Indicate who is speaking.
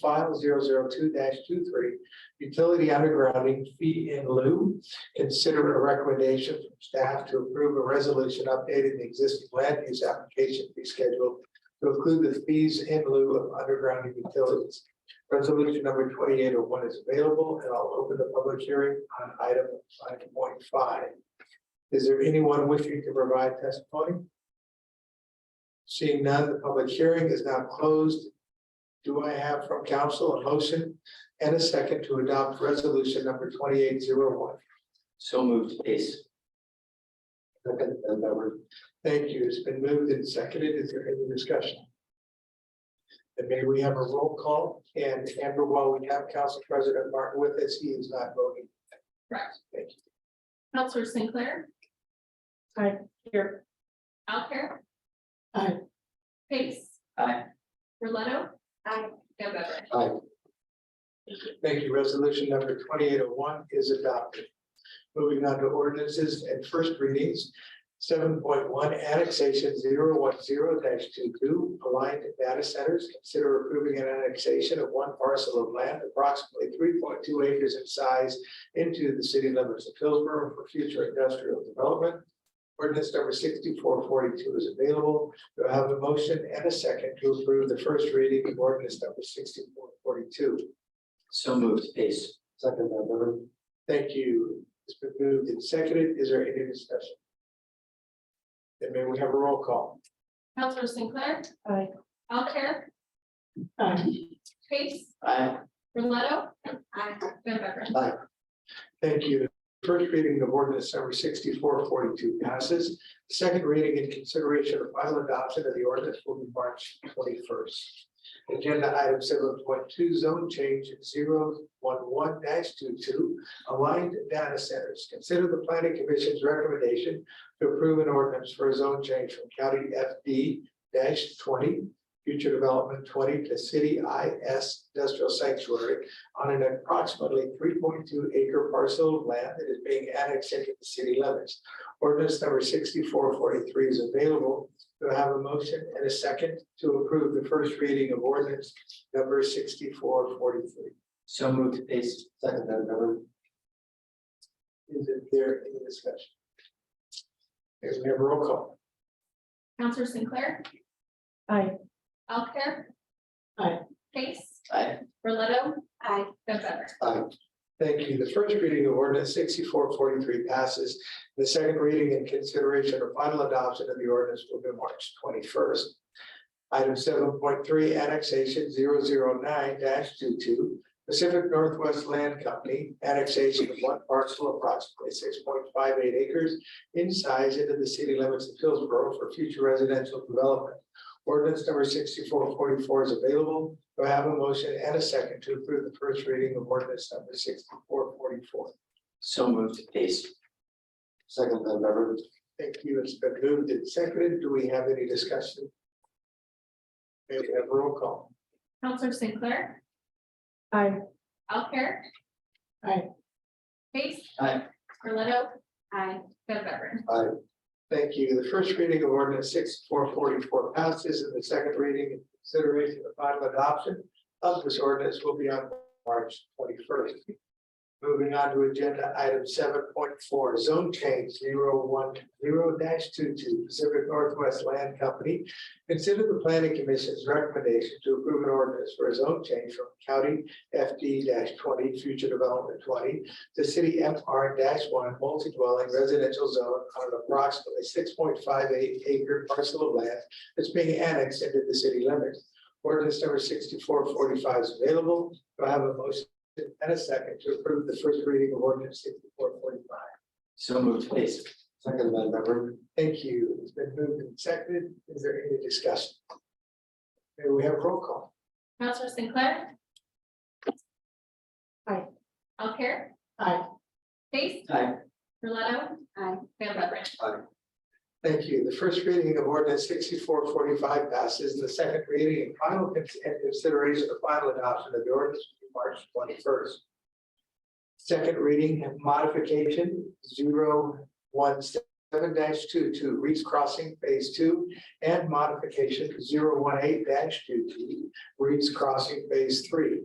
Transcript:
Speaker 1: file 002-23 utility undergrounding fee in lieu. Consider a recommendation from staff to approve a resolution updating the existing land use application fee schedule to include the fees in lieu of undergrounding utilities. Resolution number twenty-eight oh one is available, and I'll open the public hearing on item five point five. Is there anyone wishing to provide testimony? Seeing none, the public hearing is now closed. Do I have from council a motion and a second to adopt resolution number twenty-eight zero one?
Speaker 2: So moved, Pace.
Speaker 1: Second, and Edward. Thank you. It's been moved and seconded. Is there any discussion? And may we have a roll call? And Amber, while we have Council President Martin with us, he is not voting.
Speaker 3: Correct.
Speaker 1: Thank you.
Speaker 3: Counselor Sinclair. Aye. Here. Alcare.
Speaker 1: Aye.
Speaker 3: Pace.
Speaker 2: Aye.
Speaker 3: Ruletto. Aye. Go Beverly.
Speaker 1: Thank you. Resolution number twenty-eight oh one is adopted. Moving on to ordinances and first readings. Seven point one annexation 010-22 aligned data centers. Consider approving an annexation of one parcel of land approximately three point two acres in size into the city limits of Hillsborough for future industrial development. Ordinance number sixty-four forty-two is available. Do I have a motion and a second to approve the first reading of ordinance number sixty-four forty-two?
Speaker 2: So moved, Pace.
Speaker 1: Second, by Beverly. Thank you. It's been moved and seconded. Is there any discussion? Then may we have a roll call?
Speaker 3: Counselor Sinclair.
Speaker 4: Aye.
Speaker 3: Alcare.
Speaker 4: Aye.
Speaker 3: Pace.
Speaker 2: Aye.
Speaker 3: Ruletto. Aye. Go Beverly.
Speaker 1: Thank you. First reading of ordinance number sixty-four forty-two passes. Second reading and consideration of final adoption of the ordinance will be March twenty-first. Agenda item seven point two zone change 011-22 aligned data centers. Consider the planning commission's recommendation to approve an ordinance for a zone change from county FD twenty future development twenty to city IS industrial sanctuary on an approximately three point two acre parcel of land that is being annexed into the city limits. Ordinance number sixty-four forty-three is available. Do I have a motion and a second to approve the first reading of ordinance number sixty-four forty-three?
Speaker 2: So moved, Pace.
Speaker 1: Second, that number. Is it there any discussion? Here's we have a roll call.
Speaker 3: Counselor Sinclair.
Speaker 4: Aye.
Speaker 3: Alcare.
Speaker 4: Aye.
Speaker 3: Pace.
Speaker 2: Aye.
Speaker 3: Ruletto. Aye. Go Beverly.
Speaker 1: Aye. Um, Thank you. The first reading of ordinance sixty-four forty-three passes. The second reading and consideration of final adoption of the ordinance will be March twenty-first. Item seven point three, annexation 009-22 Pacific Northwest Land Company, annexation of one parcel approximately six point five eight acres in size into the city limits of Hillsborough for future residential development. Ordinance number sixty-four forty-four is available. Do I have a motion and a second to approve the first reading of ordinance number sixty-four forty-four?
Speaker 2: So moved, Pace.
Speaker 1: Second, by Beverly. Thank you. It's been moved and seconded. Do we have any discussion? May we have a roll call?
Speaker 3: Counselor Sinclair.
Speaker 4: Aye.
Speaker 3: Alcare.
Speaker 4: Aye.
Speaker 3: Pace.
Speaker 2: Aye.
Speaker 3: Ruletto. Aye. Go Beverly.
Speaker 1: Thank you. The first reading of ordinance sixty-four forty-four passes and the second reading and consideration of final adoption of this ordinance will be on March twenty-first. Moving on to agenda item seven point four, zone change 010-22 Pacific Northwest Land Company. Consider the planning commission's recommendation to approve an ordinance for a zone change from county FD twenty, future development twenty. To city FR one, multi-dwelling residential zone on an approximately six point five eight acre parcel of land. That's being annexed into the city limits. Ordinance number sixty-four forty-five is available. Do I have a motion and a second to approve the first reading of ordinance sixty-four forty-five.
Speaker 2: So moved, Pace.
Speaker 1: Second, Madam Member. Thank you. It's been moved and seconded. Is there any discussion? May we have roll call?
Speaker 3: Counselor Sinclair.
Speaker 4: Aye.
Speaker 3: Alcare.
Speaker 4: Aye.
Speaker 3: Pace.
Speaker 2: Aye.
Speaker 3: Ruletto. Aye. Go Beverly.
Speaker 1: Thank you. The first reading of ordinance sixty-four forty-five passes. The second reading and final cons- and consideration of final adoption of the ordinance will be March twenty-first. Second reading and modification 017-22 seven two to Reese Crossing Phase Two and modification 18 two to Reese Crossing Phase Three.